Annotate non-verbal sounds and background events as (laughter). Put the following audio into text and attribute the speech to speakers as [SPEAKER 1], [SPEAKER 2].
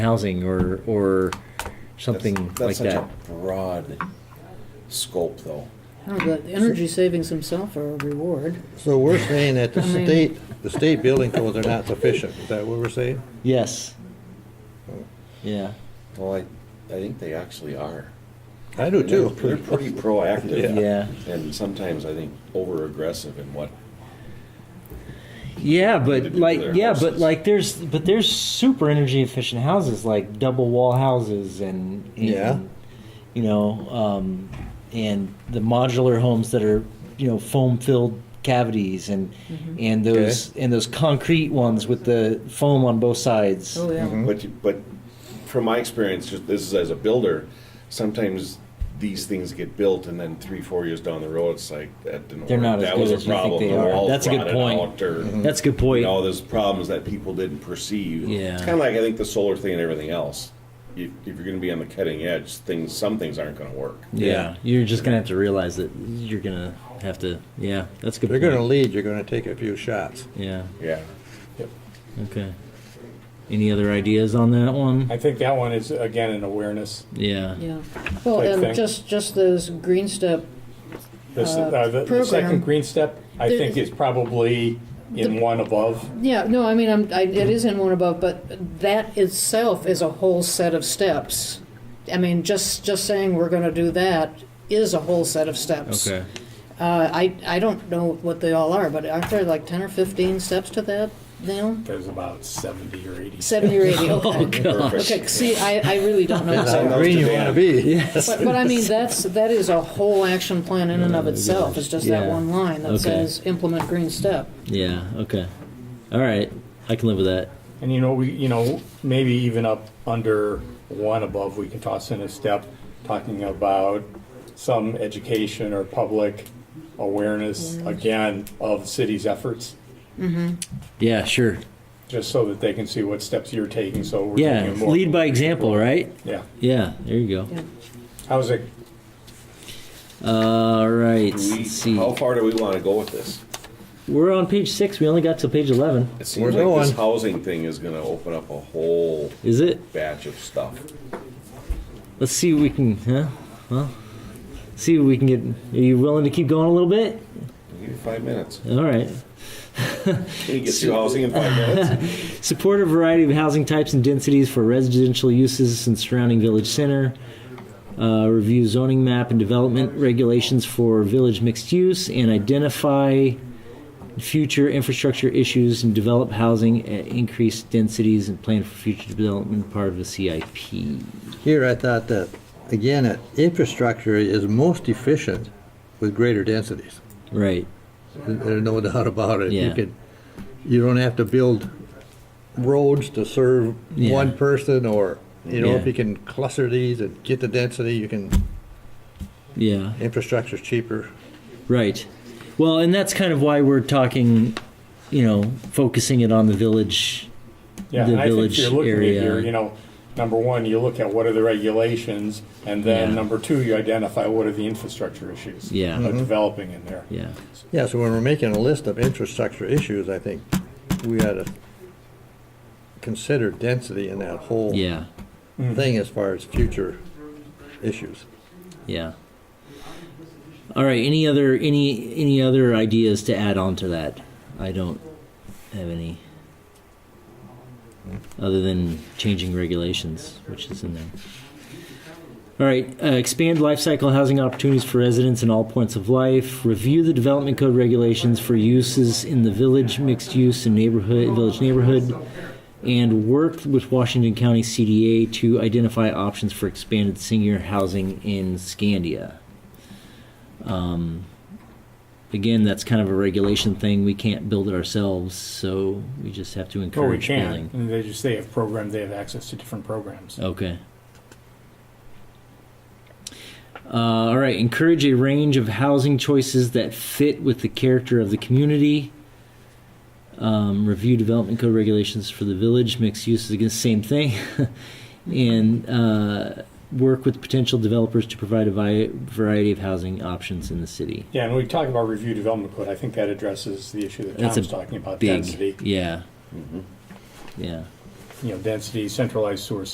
[SPEAKER 1] housing or, or
[SPEAKER 2] That's-
[SPEAKER 1] something like
[SPEAKER 2] That's such
[SPEAKER 1] that.
[SPEAKER 2] a broad scope, though.
[SPEAKER 3] No, but the Oh, energy savings themselves are a reward.
[SPEAKER 4] So we're saying that the
[SPEAKER 3] I mean-
[SPEAKER 4] state, the state building codes are not sufficient, is that what we're saying?
[SPEAKER 1] Yes.
[SPEAKER 2] Oh.
[SPEAKER 1] Yeah.
[SPEAKER 2] Well, I, I think they actually are.
[SPEAKER 4] I do
[SPEAKER 2] They're-
[SPEAKER 4] too.
[SPEAKER 2] They're pretty proactive.
[SPEAKER 1] Yeah.
[SPEAKER 2] And sometimes I think over aggressive in what,
[SPEAKER 1] Yeah, but
[SPEAKER 2] do
[SPEAKER 1] like,
[SPEAKER 2] their
[SPEAKER 1] yeah, but
[SPEAKER 2] houses.
[SPEAKER 1] like, there's, but there's super energy efficient houses, like double wall houses and, and,
[SPEAKER 4] Yeah.
[SPEAKER 1] you know, um, and the modular homes that are, you know, foam filled cavities and, and those, and those concrete ones with the foam on both sides.
[SPEAKER 3] Oh, yeah.
[SPEAKER 2] but, you- but from my experience, just this is as a builder, sometimes these things get built and then three, four years down the road, it's like, that didn't work.
[SPEAKER 1] They're not as
[SPEAKER 2] That
[SPEAKER 1] good
[SPEAKER 2] was a
[SPEAKER 1] as you think
[SPEAKER 2] problem.
[SPEAKER 1] they
[SPEAKER 2] The
[SPEAKER 1] are.
[SPEAKER 2] walls
[SPEAKER 1] That's a good
[SPEAKER 2] rotted
[SPEAKER 1] point.
[SPEAKER 2] out or-
[SPEAKER 1] That's a good
[SPEAKER 2] You
[SPEAKER 1] point.
[SPEAKER 2] know, there's problems that people didn't perceive.
[SPEAKER 1] Yeah.
[SPEAKER 2] It's kind of like, I think, the solar thing and everything else. If, if you're gonna be on the cutting edge, things, some things aren't gonna work.
[SPEAKER 1] Yeah, you're just gonna have to realize that you're gonna have to. Yeah, that's a good.
[SPEAKER 4] They're gonna
[SPEAKER 1] point.
[SPEAKER 4] lead, you're gonna take a few shots.
[SPEAKER 1] Yeah. (laughs)
[SPEAKER 2] Yeah.
[SPEAKER 1] Okay. Any other ideas on that one?
[SPEAKER 5] I think that one is, again, an awareness.
[SPEAKER 1] Yeah.
[SPEAKER 3] Yeah. Well,
[SPEAKER 5] Like
[SPEAKER 3] and
[SPEAKER 5] thing.
[SPEAKER 3] just, just those green step,
[SPEAKER 5] This- uh, The the
[SPEAKER 3] program.
[SPEAKER 5] second green step, I
[SPEAKER 3] There-
[SPEAKER 5] think, is probably in one above.
[SPEAKER 3] yeah, no, I mean, I'm, I, it is in one above, but that itself is a whole set of steps. I mean, just, just saying we're gonna do that is a whole set of steps.
[SPEAKER 1] Okay.
[SPEAKER 3] Uh, I, I don't know what they all are, but aren't there like ten or fifteen steps to that now?
[SPEAKER 5] There's about 70 or 80.
[SPEAKER 3] Seventy or eighty,
[SPEAKER 1] Oh
[SPEAKER 3] okay.
[SPEAKER 1] gosh.
[SPEAKER 3] Okay, see, I, I really don't know.
[SPEAKER 4] That's how
[SPEAKER 2] Sounds
[SPEAKER 4] green
[SPEAKER 2] to
[SPEAKER 4] you
[SPEAKER 2] me.
[SPEAKER 4] wanna be.
[SPEAKER 1] Yes.
[SPEAKER 3] But, but I mean, that's, that is a whole action plan in and of itself, it's just that
[SPEAKER 1] Yeah.
[SPEAKER 3] one line
[SPEAKER 1] Okay.
[SPEAKER 3] that says, implement green step.
[SPEAKER 1] Yeah. Okay. All right. I can live with that.
[SPEAKER 5] And you know, we, you know, maybe even up under one above, we can toss in a step talking about some education or public awareness, again, of city's efforts,
[SPEAKER 1] Yeah. Sure.
[SPEAKER 5] just so that they can see what steps you're taking, so we're
[SPEAKER 1] Yeah.
[SPEAKER 5] taking more.
[SPEAKER 1] Lead by example, right?
[SPEAKER 5] Yeah.
[SPEAKER 1] Yeah. There you
[SPEAKER 3] Yeah.
[SPEAKER 5] How's it,
[SPEAKER 1] go. All right.
[SPEAKER 2] Do we-
[SPEAKER 1] Let's see.
[SPEAKER 2] How far do we want to go with this?
[SPEAKER 1] We're on page six. We only got to page eleven.
[SPEAKER 2] It
[SPEAKER 4] We're
[SPEAKER 2] seems like this
[SPEAKER 4] going.
[SPEAKER 2] housing thing is gonna open up a whole
[SPEAKER 1] Is it?
[SPEAKER 2] batch of stuff.
[SPEAKER 1] Let's see what we can. Huh? Well. See what we can get. Are you willing to keep going a little bit?
[SPEAKER 2] Give you five minutes.
[SPEAKER 1] All right.
[SPEAKER 2] Can you get through housing in five minutes?
[SPEAKER 1] Support a variety of housing types and densities for residential uses in surrounding village center. Uh, review zoning map and development regulations for village mixed use and identify future infrastructure issues and develop housing at increased densities and plan for future development part of a CIP.
[SPEAKER 4] (laughs) Here, I thought that, again, that infrastructure is most efficient with greater densities.
[SPEAKER 1] Right.
[SPEAKER 4] There's no doubt about it.
[SPEAKER 1] Yeah.
[SPEAKER 4] You can, you don't have to build roads to serve
[SPEAKER 1] Yeah.
[SPEAKER 4] one person or, you know, if
[SPEAKER 1] Yeah.
[SPEAKER 4] you can cluster these and get the density, you can,
[SPEAKER 1] Yeah.
[SPEAKER 4] infrastructure's cheaper.
[SPEAKER 1] Right. Well, and that's kind of why we're talking, you know, focusing it on the village.
[SPEAKER 5] yeah,
[SPEAKER 1] The
[SPEAKER 5] and I think
[SPEAKER 1] village
[SPEAKER 5] if you're looking at
[SPEAKER 1] area.
[SPEAKER 5] your, you know, number one, you look at what are the regulations, and then
[SPEAKER 1] Yeah.
[SPEAKER 5] number two, you identify what are the infrastructure issues.
[SPEAKER 1] Yeah.
[SPEAKER 5] Of developing in there.
[SPEAKER 1] Yeah.
[SPEAKER 4] Yeah, so when we're making a list of infrastructure issues, I think we ought to consider density in that whole
[SPEAKER 1] Yeah.
[SPEAKER 4] thing as far as future issues.
[SPEAKER 1] Yeah. All right. Any other any any other ideas to add on to that? I don't have any. Other than changing regulations, which is in there. All right. Uh, expand lifecycle housing opportunities for residents in all points of life. Review the development code regulations for uses in the village, mixed use, and neighborhood village neighborhood. And work with Washington County CDA to identify options for expanded senior housing in Scandia. Um, again, that's kind of a regulation thing. We can't build it ourselves, so we just have to
[SPEAKER 5] Or we
[SPEAKER 1] encourage
[SPEAKER 5] can,
[SPEAKER 1] building.
[SPEAKER 5] and they just, they have programs, they have access to different programs.
[SPEAKER 1] Okay. Uh, all right. Encourage a range of housing choices that fit with the character of the community. Um, review development code regulations for the village. Mixed use is again the same thing, (laughs) and uh, work with potential developers to provide a vi- variety of housing options in the city.
[SPEAKER 5] Yeah, and we talk about review development code, I think that addresses the issue that
[SPEAKER 1] That's
[SPEAKER 5] Tom's
[SPEAKER 1] a
[SPEAKER 5] talking about,
[SPEAKER 1] Big, Mm-hmm.
[SPEAKER 5] density,
[SPEAKER 1] yeah, yeah.
[SPEAKER 5] you know, density, centralized sewer